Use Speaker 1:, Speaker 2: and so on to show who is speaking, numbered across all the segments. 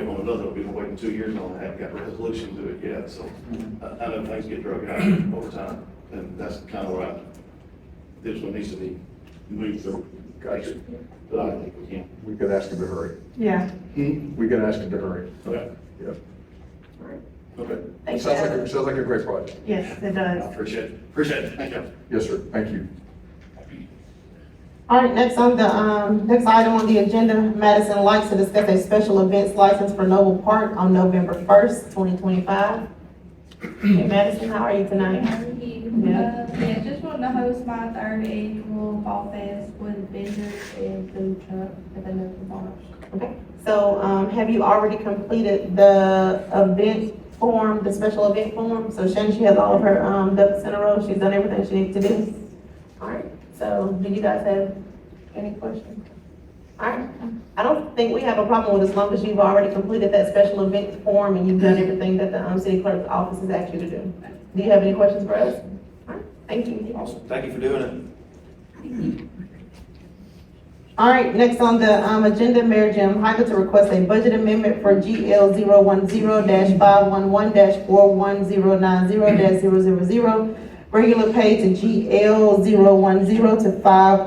Speaker 1: don't know, that we've been waiting two years on, it, haven't got a resolution to it yet, so I, I know things get drug out over time, and that's kind of where I, this one needs to be moved through.
Speaker 2: Gotcha.
Speaker 1: But I think we can.
Speaker 2: We could ask him to hurry.
Speaker 3: Yeah.
Speaker 2: We could ask him to hurry.
Speaker 1: Okay,
Speaker 2: Yep.
Speaker 1: okay,
Speaker 3: Thank you.
Speaker 2: Sounds like, a- sounds like a great project.
Speaker 3: Yes, it
Speaker 1: I
Speaker 3: does.
Speaker 1: appreciate it, appreciate it, thank you.
Speaker 2: Yes, sir. Thank you.
Speaker 4: All right, next on the, um, next item on the agenda, Madison likes to discuss a special events license for Noble Park on November first, twenty twenty-five. Hey Madison, how are you tonight?
Speaker 5: Thank you.
Speaker 4: Yeah.
Speaker 5: Uh, Yeah, just wanted to host my third annual fall fest with vendors and food truck at the local bars.
Speaker 4: So, um, have you already completed the event form, the special event form? So Shannon, she has all of her, um, ducks in a row, she's done everything she needs to do. All right, so do you guys have any questions? All right, I don't think we have a problem with as long as you've already completed that special event form and you've done everything that the, um, city clerk's office has asked you to do. Do you have any questions for us? All right, thank you.
Speaker 6: Awesome, thank you for doing it.
Speaker 4: All right, next on the, um, agenda, Mayor Jim Hyder to request a budget amendment for GL 10 five one one four one zero nine zero 0 Regular pay to GL 10 to five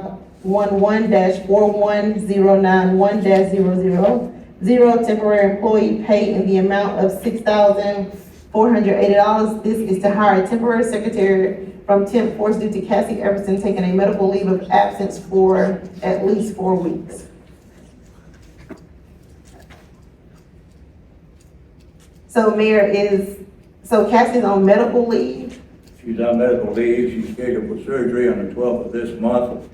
Speaker 4: one one four one zero nine one 0 temporary employee pay in the amount of six thousand four hundred eighty dollars. This is to hire a temporary secretary from temp force due to Cassie Everson taking a medical leave of absence for at least four weeks. So Mayor is, so Cassie's on medical leave.
Speaker 7: She's on medical leave, she's scheduled for surgery on the twelfth of this month,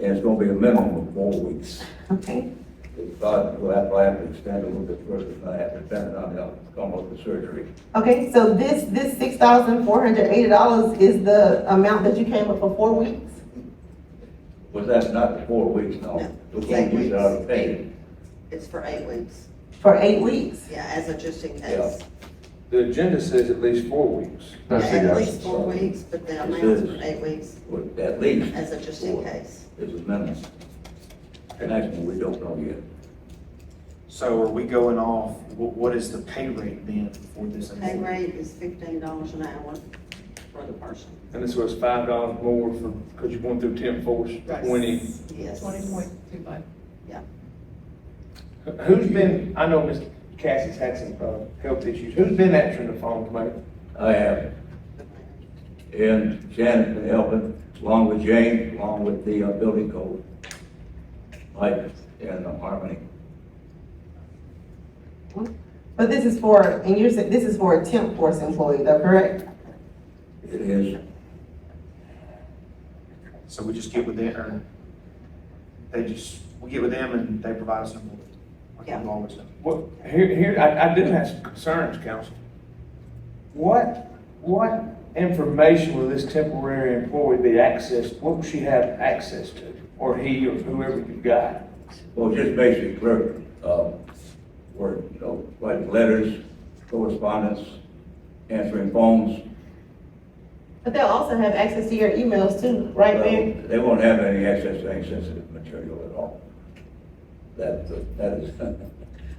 Speaker 7: and it's gonna be a minimum of four weeks.
Speaker 4: Okay,
Speaker 7: If not, we'll have, I have to extend a little bit further, if I have to depend on the outcome of the surgery.
Speaker 4: okay, so this, this six thousand four hundred eighty dollars is the amount that you came up for four weeks?
Speaker 7: Was that not the four weeks, no?
Speaker 8: No,
Speaker 7: We
Speaker 8: it's
Speaker 7: can't
Speaker 8: eight
Speaker 7: use it out
Speaker 8: weeks.
Speaker 7: of pay.
Speaker 8: It's for eight weeks,
Speaker 4: For eight weeks?
Speaker 8: yeah, as a just in
Speaker 7: Yeah.
Speaker 8: case.
Speaker 6: The agenda says at least four weeks.
Speaker 2: That's the
Speaker 8: At
Speaker 2: guy.
Speaker 8: least four weeks, but the
Speaker 7: It
Speaker 8: amount's
Speaker 7: says-
Speaker 8: for eight weeks,
Speaker 7: But at least.
Speaker 8: as a just in
Speaker 7: four
Speaker 8: case.
Speaker 7: Is a minimum. The next one, we don't know yet.
Speaker 6: So are we going off, what, what is the pay rate then for this?
Speaker 8: Pay rate is fifteen dollars an hour for the person.
Speaker 9: And this was five dollars more for, because you're going through temp force, twenty.
Speaker 8: Yes.
Speaker 3: Twenty point two five.
Speaker 9: Who's been, I know Miss Cassie's had some, uh, health issues. Who's been answering the phone, Mayor?
Speaker 7: I have, and Shannon's been helping, along with James, along with the uh, building code. Mike and uh, Harmony.
Speaker 4: But this is for, and you're saying, this is for a temp force employee, though, correct?
Speaker 7: It is,
Speaker 6: So we just get with them, or they just, we get with them and they provide us an order? Like
Speaker 8: Yeah.
Speaker 6: we've always done.
Speaker 9: Well, here, here, I, I do have some concerns, council. What, what information will this temporary employee be accessed, what will she have access to? Or he, or whoever you got?
Speaker 7: well, just basic clerk, uh, work, you know, writing letters, correspondence, answering phones.
Speaker 4: But they'll also have access to your emails too, right, Mayor?
Speaker 7: They won't have any access to any sensitive material at all. That, that is,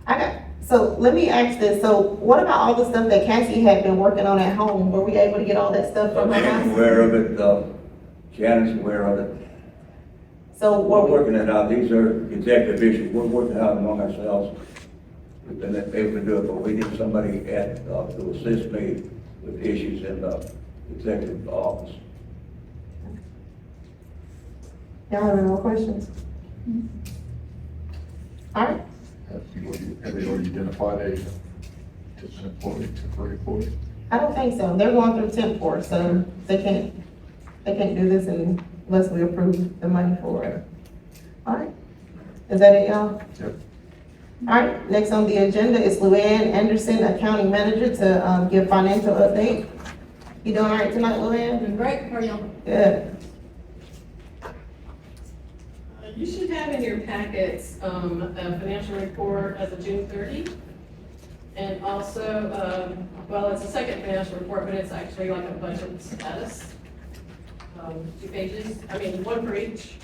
Speaker 4: I got, so let me ask this, so what about all the stuff that Cassie had been working on at home? Were we able to get all that stuff from her
Speaker 7: I'm
Speaker 4: house?
Speaker 7: aware of it, uh, Shannon's aware of it.
Speaker 4: So
Speaker 7: We're
Speaker 4: were we,
Speaker 7: working it out, these are executive issues, we're working out among ourselves. We've been able to do it, but we need somebody at, uh, to assist me with issues in the executive office.
Speaker 4: y'all have any more questions? All right,
Speaker 2: Have you- have they already identified a, just an employee, temporary employee?
Speaker 4: I don't think so, they're going through temp force, so they can't, they can't do this unless we approve the money for it. All right, is that it, y'all?
Speaker 2: Yep.
Speaker 4: All right, next on the agenda is Luann Anderson, accounting manager, to, um, give financial update. You doing all right tonight, Luann?
Speaker 10: Doing great, how are y'all?
Speaker 4: Good.
Speaker 10: Uh, You should have in your packets, um, a financial report as of June thirty. And also, um, well, it's a second financial report, but it's actually like a budget status. Um, two pages, I mean, one for each,